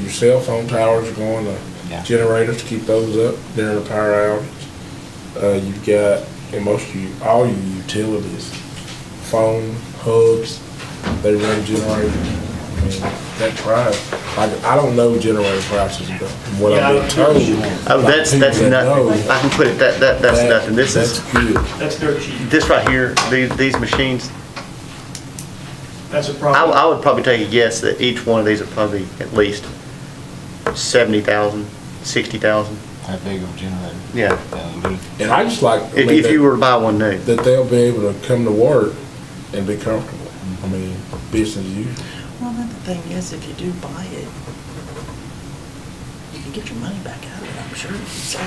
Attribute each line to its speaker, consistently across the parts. Speaker 1: your cell phone towers are going,
Speaker 2: Yeah.
Speaker 1: the generators, keep those up during the power outage. Uh, you've got, and most of you, all your utilities, phone, hubs, they run generators. I mean, That price, like, I don't know generator prices, but what
Speaker 3: Yeah, I
Speaker 1: I've
Speaker 3: don't
Speaker 1: been told.
Speaker 4: Oh,
Speaker 1: by
Speaker 4: that's,
Speaker 1: people
Speaker 4: that's
Speaker 1: that
Speaker 4: nothing.
Speaker 1: know,
Speaker 4: I can put it, that, that, that's
Speaker 1: that-
Speaker 4: nothing. This is,
Speaker 1: That's good.
Speaker 3: That's dirt cheap.
Speaker 4: this right here, these, these machines,
Speaker 3: That's a
Speaker 4: I,
Speaker 3: problem.
Speaker 4: I would probably take a guess that each one of these are probably at least seventy thousand, sixty thousand.
Speaker 2: That big of a generator.
Speaker 4: Yeah.
Speaker 2: Yeah.
Speaker 1: And I just like. I
Speaker 4: If,
Speaker 1: mean,
Speaker 4: if
Speaker 1: that-
Speaker 4: you were to buy one new.
Speaker 1: that they'll be able to come to work and be comfortable. I mean, business as usual.
Speaker 5: Well, then the thing is, if you do buy it, you can get your money back out of it, I'm sure. So,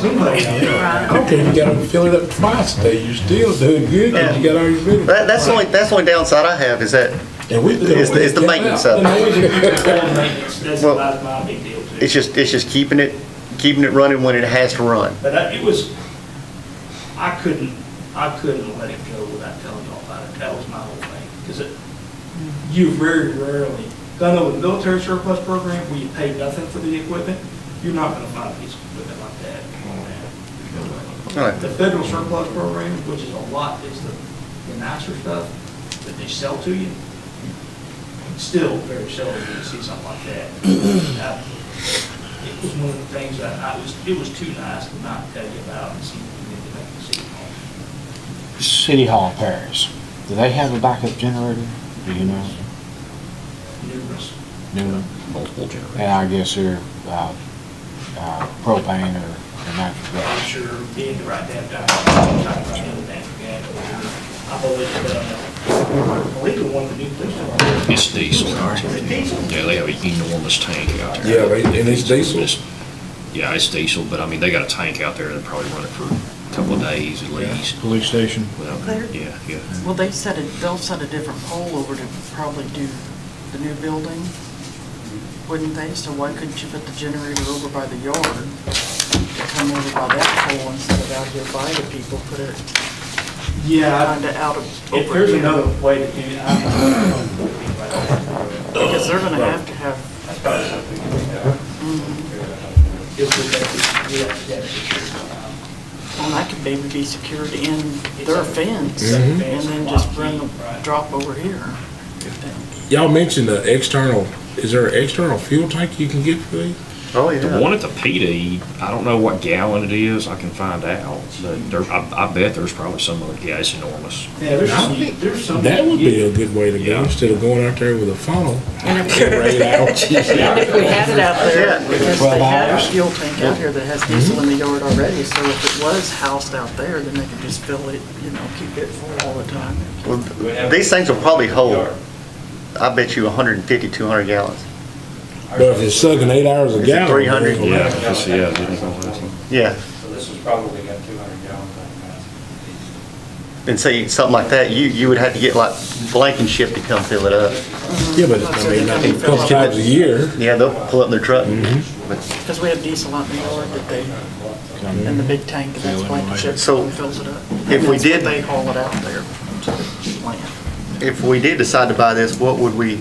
Speaker 3: Somebody-
Speaker 1: I don't care if you gotta fill it up twice a day, you're still doing good, 'cause you got all your business.
Speaker 4: That, that's the only, that's the only downside I have is that
Speaker 1: And we.
Speaker 4: It's the- it's the maintenance of
Speaker 3: Controlled maintenance, That's
Speaker 4: Well,
Speaker 3: my, my big deal too.
Speaker 4: it's just, it's just keeping it, keeping it running when it has to run.
Speaker 3: But I- it was, I couldn't, I couldn't let it go without telling y'all about it. That was my whole thing. Because you very rarely, 'cause I know with the military surplus program, where you pay nothing for the equipment, you're not going to find a piece of equipment like that. on that.
Speaker 4: All right.
Speaker 3: The federal surplus program, which is a lot, is the the nicer stuff that they sell to you. Still very seldom do you see something like that. I- It was one of the things that I was, it was too nice to not tell you about and see if you didn't make the city
Speaker 2: City
Speaker 3: hall.
Speaker 2: Hall Paris, do they have a backup generator? Do you know?
Speaker 3: Numerous.
Speaker 2: Multiple generators. And I guess they're, uh, uh, propane or or natural
Speaker 3: I'm
Speaker 2: gas.
Speaker 3: sure being the right damn guy, I'm talking about the other damn guy. I've always, uh, I believe the one, the new police department.
Speaker 6: It's diesel.
Speaker 3: It's diesel.
Speaker 6: Yeah, they have an enormous tank out there.
Speaker 1: Yeah, they- and it's diesel.
Speaker 6: Yeah, it's diesel, but I mean, they got a tank out there that probably run it for a couple of days at least.
Speaker 2: Police station.
Speaker 6: Well,
Speaker 5: There.
Speaker 6: Yeah, yeah.
Speaker 5: Well, they set a, they'll set a different pole over to probably do the new building, wouldn't they? So why couldn't you put the generator over by the yard? To Come over by that pole instead of out here by the people, put it
Speaker 3: Yeah,
Speaker 5: kinda out of.
Speaker 3: if
Speaker 5: over
Speaker 3: there's
Speaker 5: here.
Speaker 3: another way to do it, I'm not.
Speaker 5: Because they're gonna have to have
Speaker 3: It was, yeah, yeah.
Speaker 5: Well, that could maybe be secured in their fence
Speaker 3: Mhm.
Speaker 5: and then just bring the drop over here.
Speaker 1: Y'all mentioned the external, is there an external fuel tank you can get for these?
Speaker 4: Oh,
Speaker 6: The one at the PD, I don't know what gallon it is, I can find out, but there, I, I bet there's probably some other, yeah, it's enormous.
Speaker 3: Yeah, there's
Speaker 1: I
Speaker 3: some,
Speaker 1: think
Speaker 3: there's some.
Speaker 1: That would be a good way to go,
Speaker 6: Yeah.
Speaker 1: instead of going out there with a funnel.
Speaker 5: And if-
Speaker 1: Get right out.
Speaker 5: And if we had it out there,
Speaker 4: Yeah.
Speaker 5: because they have
Speaker 2: hours.
Speaker 5: a fuel tank out here that has diesel in the yard already, so if it was housed out there, then they could just fill it, you know, keep it full all the time.
Speaker 4: Well, These things will probably hold, I bet you 150, 200 gallons.
Speaker 1: But if it's sucking eight hours a
Speaker 4: it
Speaker 1: gallon.
Speaker 4: 300?
Speaker 1: then-
Speaker 6: Yeah, it's- yeah. it is.
Speaker 4: Yeah.
Speaker 7: So this is probably got 200 gallons on that.
Speaker 4: And see, something like that, you, you would have to get like Blankenship to come fill it up.
Speaker 1: Yeah, but it's, I mean, a couple times a year.
Speaker 4: Yeah, they'll pull up in their truck. But-
Speaker 5: Because we have diesel out in the yard that they, in the big tank, and that's why the ship
Speaker 4: So,
Speaker 5: fills it up.
Speaker 4: if we
Speaker 5: That's what
Speaker 4: did-
Speaker 5: They haul it out there to the plant.
Speaker 4: If we did decide to buy this, what would we,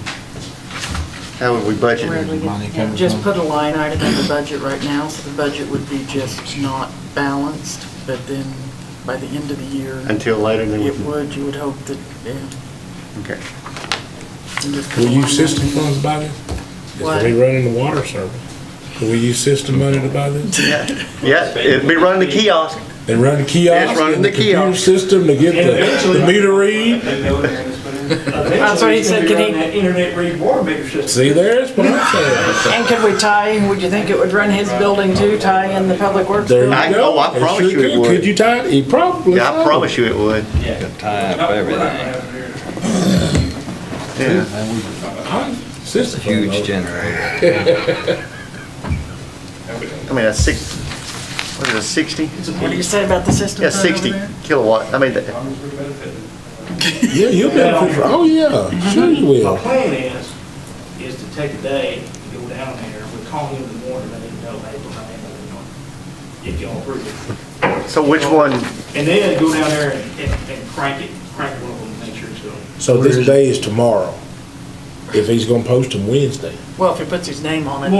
Speaker 4: how would we budget?
Speaker 2: Money coming
Speaker 5: Just
Speaker 2: from-
Speaker 5: put a line item in the budget right now, so the budget would be just not balanced, but then by the end of the year,
Speaker 4: Until later, then we
Speaker 5: it
Speaker 4: can,
Speaker 5: would, you would hope that, yeah.
Speaker 4: okay.
Speaker 5: and just put
Speaker 1: Will
Speaker 5: a
Speaker 1: you
Speaker 5: line
Speaker 1: use system
Speaker 5: item in.
Speaker 1: funds to buy this?
Speaker 5: What?
Speaker 1: Is we running the water service? Do we use system money to buy this?
Speaker 4: Yeah, it'd be running the kiosk.
Speaker 1: They run the kiosk,
Speaker 4: running
Speaker 1: and the
Speaker 4: the
Speaker 1: computer
Speaker 4: kiosk.
Speaker 1: system to get the- the meter read?
Speaker 7: They know they're gonna put in.
Speaker 5: That's what he
Speaker 3: Eventually,
Speaker 5: said,
Speaker 3: it's
Speaker 5: could he-
Speaker 3: gonna be running that Internet read water meter system.
Speaker 1: See, there's what I'm saying.
Speaker 5: And could we tie, would you think it would run his building too, tie in the public works?
Speaker 1: There
Speaker 5: building?
Speaker 4: I-
Speaker 1: you go.
Speaker 4: oh, I
Speaker 1: It sure
Speaker 4: promise you it
Speaker 1: could.
Speaker 4: would.
Speaker 1: Could you tie it? It probably.
Speaker 4: Yeah, I
Speaker 1: would.
Speaker 4: promise you it would.
Speaker 7: Time for everything.
Speaker 4: Yeah.
Speaker 1: I- System. Huge generator.
Speaker 4: I mean, that's six, what is it, 60?
Speaker 5: What do you say about the system?
Speaker 4: Yeah,
Speaker 5: fund over
Speaker 4: 60
Speaker 5: there?
Speaker 4: kilowatt. I mean, that-
Speaker 1: Yeah, you'll benefit from, oh, yeah, sure you
Speaker 3: My
Speaker 1: will.
Speaker 3: plan is, is to take a day, to go down there, we call him in the morning, let him know, hey, we're not in the morning. If y'all approve it.
Speaker 4: so which one,
Speaker 3: And then go down there and, and and crank it, crank one of them, make sure it's going.
Speaker 1: So this day is tomorrow, if he's gonna post him Wednesday.
Speaker 5: Well, if he puts his name on it.